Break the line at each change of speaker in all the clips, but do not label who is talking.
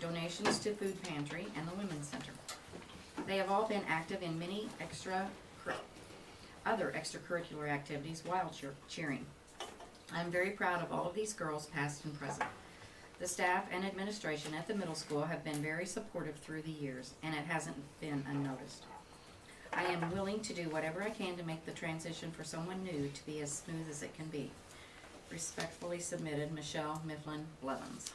donations to food pantry and the women's center. They have all been active in many extra, cur- other extracurricular activities while cheer- cheering. I'm very proud of all of these girls, past and present. The staff and administration at the middle school have been very supportive through the years, and it hasn't been unnoticed. I am willing to do whatever I can to make the transition for someone new to be as smooth as it can be. Respectfully submitted, Michelle Mifflin Levens.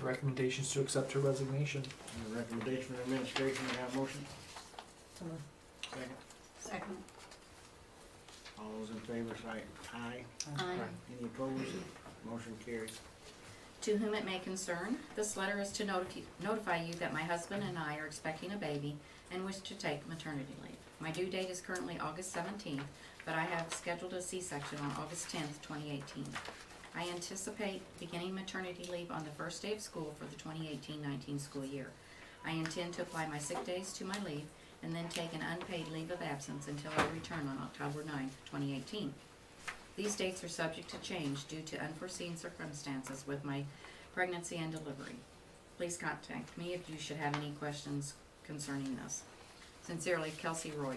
Recommendations to accept her resignation.
Any recommendation from the administration, may I have a motion? Second.
Second.
All those in favor, say aye. Any opposed? Motion carries.
To whom it may concern, this letter is to noti- notify you that my husband and I are expecting a baby and wish to take maternity leave. My due date is currently August seventeenth, but I have scheduled a C-section on August tenth, twenty eighteen. I anticipate beginning maternity leave on the first day of school for the 2018-19 school year. I intend to apply my sick days to my leave and then take an unpaid leave of absence until I return on October 9, twenty eighteen. These dates are subject to change due to unforeseen circumstances with my pregnancy and delivery. Please contact me if you should have any questions concerning this. Sincerely, Kelsey Royer.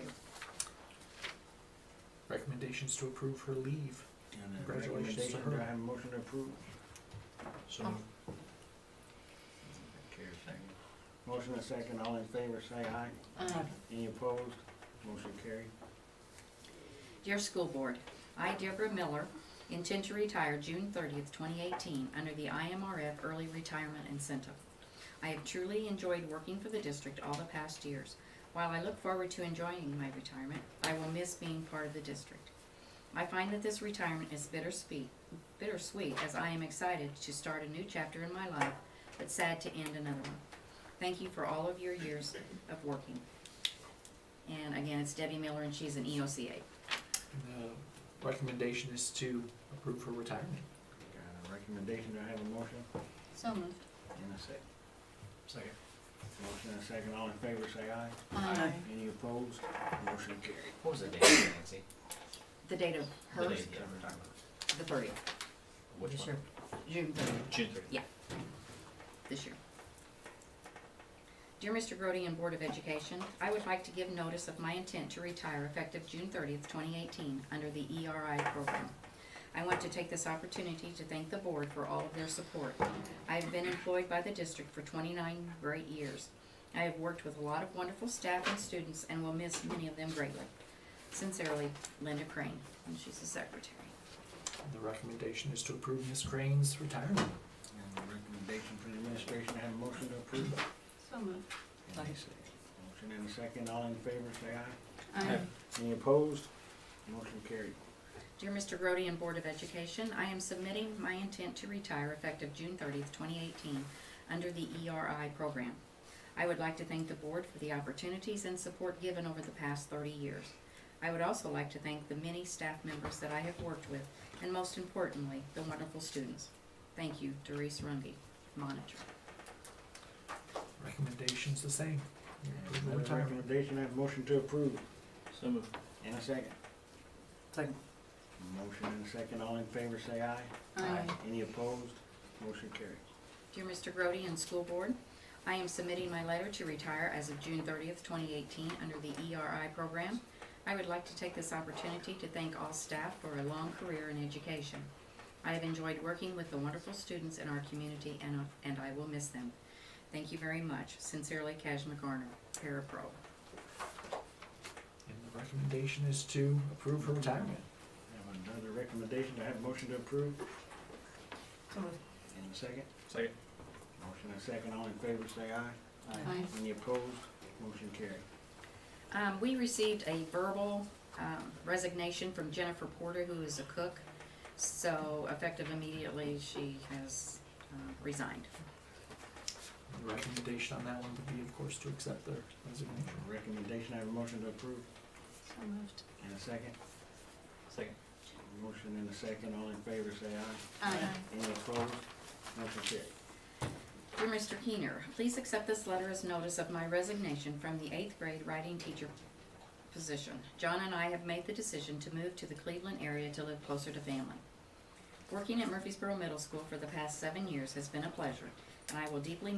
Recommendations to approve her leave.
And a
Congratulations to
recommendation,
her.
Do I have a motion to approve? So.
Oh.
Carries second. Motion and second, all in favor, say aye. Any opposed? Motion carried.
Dear School Board, I, Deborah Miller, intend to retire June thirtieth, twenty eighteen, under the IMRF Early Retirement Incentive. I have truly enjoyed working for the district all the past years. While I look forward to enjoying my retirement, I will miss being part of the district. I find that this retirement is bittersweet, bittersweet, as I am excited to start a new chapter in my life, but sad to end another one. Thank you for all of your years of working. And again, it's Debbie Miller, and she's an E EOCA.
And the recommendation is to approve her retirement.
Got a recommendation, do I have a motion?
So moved.
And a second. Second. Motion and second, all in favor, say aye.
Um,
Any opposed? Motion carried.
What was the date, Nancy?
The date of
The
hers,
date of retirement.
the thirtieth.
Which
This
one?
year. June thirtieth,
June thirtieth.
this year. Dear Mr. Grody and Board of Education, I would like to give notice of my intent to retire effective June thirtieth, twenty eighteen, under the ERI program. I want to take this opportunity to thank the board for all of their support. I have been employed by the district for twenty-nine great years. I have worked with a lot of wonderful staff and students and will miss many of them greatly. Sincerely, Linda Crane, and she's the secretary.
And the recommendation is to approve Ms. Crane's retirement.
And a recommendation from the administration, I have a motion to approve.
So moved.
And a second. Motion and a second, all in favor, say aye.
Aye.
Um,
Any opposed? Motion carried.
Dear Mr. Grody and Board of Education, I am submitting my intent to retire effective June thirtieth, twenty eighteen, under the ERI program. I would like to thank the board for the opportunities and support given over the past thirty years. I would also like to thank the many staff members that I have worked with, and most importantly, the wonderful students. Thank you, Doris Runge, monitor.
Recommendation's the same. You approve her
Another
retirement.
recommendation, I have a motion to approve.
So moved.
And a second.
Second.
Motion and a second, all in favor, say aye.
Aye.
Any opposed? Motion carried.
Dear Mr. Grody and School Board, I am submitting my letter to retire as of June thirtieth, twenty eighteen, under the ERI program. I would like to take this opportunity to thank all staff for a long career in education. I have enjoyed working with the wonderful students in our community and, and I will miss them. Thank you very much. Sincerely, Cash McGarner, Parapro.
And the recommendation is to approve her retirement.
I have another recommendation, I have a motion to approve. And a second.
Second.
Motion and a second, all in favor, say aye.
Aye.
Any opposed? Motion carried.
Um, we received a verbal, um, resignation from Jennifer Porter, who is a cook. So effective immediately, she has uh, resigned.
And the recommendation on that one would be, of course, to accept the resignation.
Recommendation, I have a motion to approve.
So moved.
And a second.
Second.
Motion and a second, all in favor, say aye.
Aye.
Any opposed? Motion carried.
Dear Mr. Keener, please accept this letter as notice of my resignation from the eighth grade writing teacher position. John and I have made the decision to move to the Cleveland area to live closer to family. Working at Murfreesboro Middle School for the past seven years has been a pleasure, and I will deeply